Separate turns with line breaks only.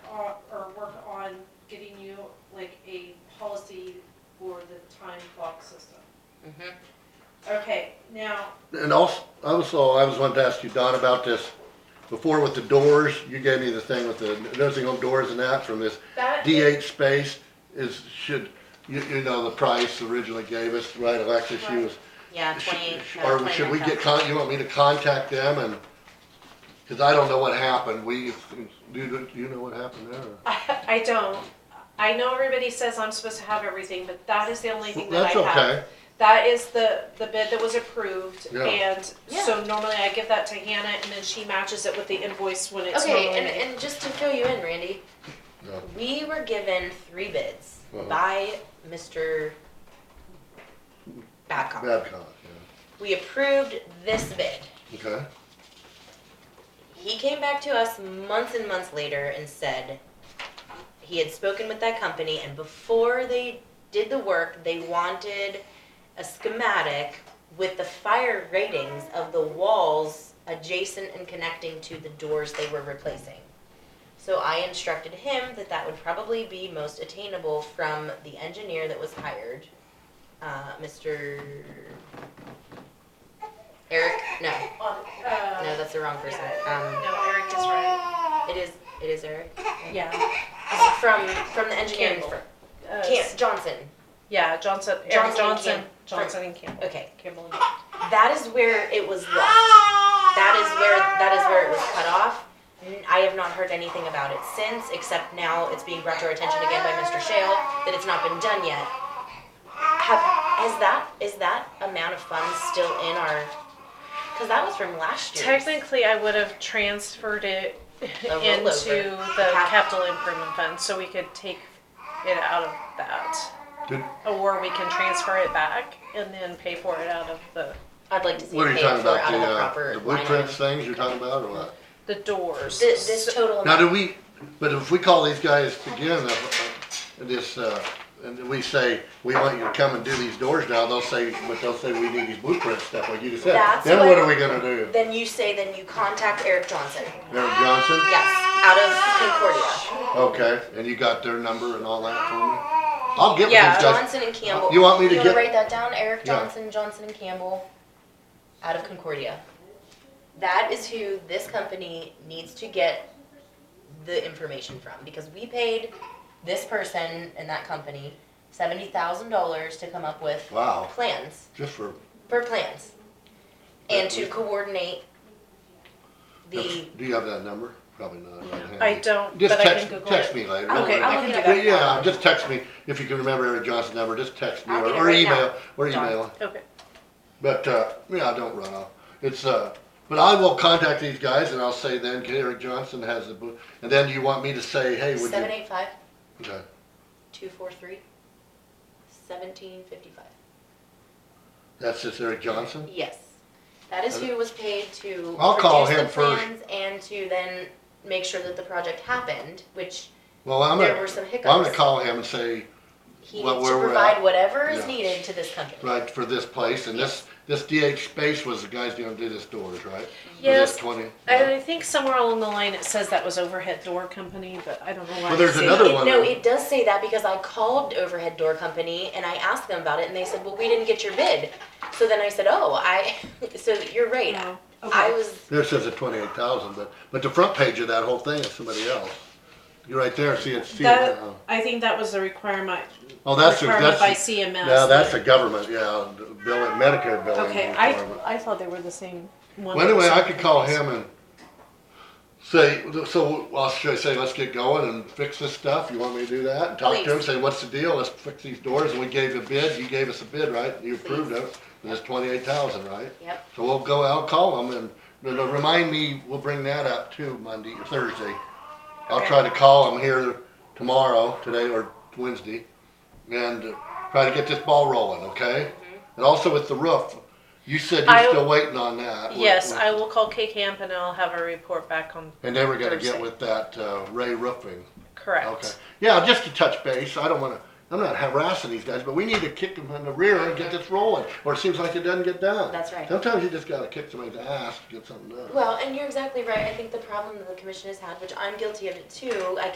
uh,
Mm-hmm.
Okay, now,
And also, also, I was wanting to ask you, Don, about this, before with the doors, you gave me the thing with the nursing home doors and that from this
that is,
DH space is, should, you, you know, the price originally gave us, right, Alexis, she was.
Yeah,
sh-
twenty-eight.
sh-
no,
Or should we
29,000.
get, con, you want me to contact them and, cause I don't know what happened, we, do you, do you know what happened there?
I, I don't, I know everybody says I'm supposed to have everything, but that is the only thing that I
That's
have.
okay,
That is the, the bid that was approved,
Yeah.
and
Yeah.
so normally I give that to Hannah, and then she matches it with the invoice when it's normally
Okay, and,
made.
and just to fill you in, Randy,
Yeah.
we were given three bids
Uh-huh.
by Mr. Babcock.
Babcock,
We approved this bid.
yeah, okay,
He came back to us months and months later and said he had spoken with that company, and before they did the work, they wanted a schematic with the fire ratings of the walls adjacent and connecting to the doors they were replacing. So I instructed him that that would probably be most attainable from the engineer that was hired, uh, Mr. Eric. No,
uh,
no, that's the wrong person. Um,
No, Eric is right.
it is. It is Eric.
Yeah.
From from the engineering
Campbell.
firm.
Uh,
Camp Johnson.
Yeah, Johnson, Eric
Johnson and
Johnson,
Camp-
Johnson and Campbell.
Okay.
Campbell and
That is where it was left. That is where that is where it was cut off. N- I have not heard anything about it since, except now it's being brought to our attention again by Mr. Shale that it's not been done yet. Have, is that is that amount of funds still in our? Because that was from last year.
Technically, I would have transferred it into
rollover.
the
Cap-
capital improvement fund, so we could take it out of that.
Did-
Or we can transfer it back and then pay for it out of the,
I'd like to see
what are
it
you
paid
talking
for
about,
out
the,
of the
uh,
proper
the
line item.
blueprints things you're talking about, or what?
the doors.
Thi- This,
So-
total.
Now,
amount-
do we, but if we call these guys again, uh, uh, this, uh, and we say, we want you to come and do these doors now, they'll say, but they'll say we need these blueprint stuff, like you just said.
That's
Then what
what-
are we gonna do?
Then you say then you contact Eric Johnson.
Eric Johnson?
Yes, out of Concordia.
Okay, and you got their number and all that for me? I'll get with
Yeah.
these guys.
Johnson and Campbell.
You want me to
You wanna
get-
write that down? Eric
Yeah.
Johnson, Johnson and Campbell, out of Concordia. That is who this company needs to get the information from, because we paid this person and that company seventy thousand dollars to come up with
Wow,
plans,
just for,
for plans. And to
Yeah.
coordinate the,
do you have that number? Probably not. right handy.
I don't,
Just
but I can
text,
Google
text
it.
me later. don't
okay,
worry.
I'll
I
look
can
it
do
up.
Yeah,
that.
yeah, just text me, if you can remember Eric Johnson's number, just text me,
I'll
or
get it
or
right now.
email, or
Done.
email.
Okay,
But uh, yeah, I don't run off. It's uh, but I will contact these guys and I'll say then Eric Johnson has the book, and then you want me to say, hey, would
seven
you?
eight five,
Okay.
two four three, seventeen fifty-five.
That's just Eric Johnson.
Yes. That is who was paid to.
I'll call
produce
him
the
first.
plans And to then make sure that the project happened, which
Well, I'm
there
gonna
were some hiccups.
I'm gonna call him and say
He
what-
needs
where
to
we're
provide
at.
whatever is
Yeah.
needed to this company.
right for this place and this this DH space was the guys gonna do this doors right. For
Yes,
this Twenty.
I I think somewhere along the line it says that was overhead door company, but I don't know why.
Well, there's
it's in
another
It-
one
No,
that-
it does say that because I called Overhead Door Company and I asked them about it and they said, well, we didn't get your bid. So then I said, oh, I, so you're right.
Oh,
I
okay.
was,
There says a twenty-eight thousand, but but the front page of that whole thing is somebody else. You're right there. See it. See it. uh-huh.
That,
now.
I think that was the requirement,
Oh, that's the-
requirement
that's
by
the-
CMS.
now that's the government. Yeah, billing Medicare billing.
Okay, I,
requirement.
I thought they were the same one.
Well, anyway, I could call him and say, so I'll should I say, let's get going and fix this stuff. You want me to do that? And
Oh,
talk to him,
Please.
say, what's the deal? Let's fix these doors. And we gave a bid. You gave us a bid, right? You approved it. And it's twenty-eight thousand, right?
yep,
So we'll go out, call him and, you know, remind me, we'll bring that up too Monday or Thursday. I'll
Okay.
try to call him here tomorrow, today or Wednesday, and uh, try to get this ball rolling, okay? And also with the roof, you said
Mm-hmm. I-
you're still waiting on that. We're-
Yes,
we're-
I will call K Camp and I'll have a report back on,
and they were gonna get
Thursday.
with that uh, Ray Roofing. Okay.
correct.
Yeah, just to touch base. I don't wanna, I'm not harassing these guys, but we need to kick them in the rear and get this rolling, or it seems like it doesn't get done.
that's right.
Sometimes you just gotta kick somebody's ass to get something done.
Well, and you're exactly right. I think the problem that the commission has had, which I'm guilty of it too, I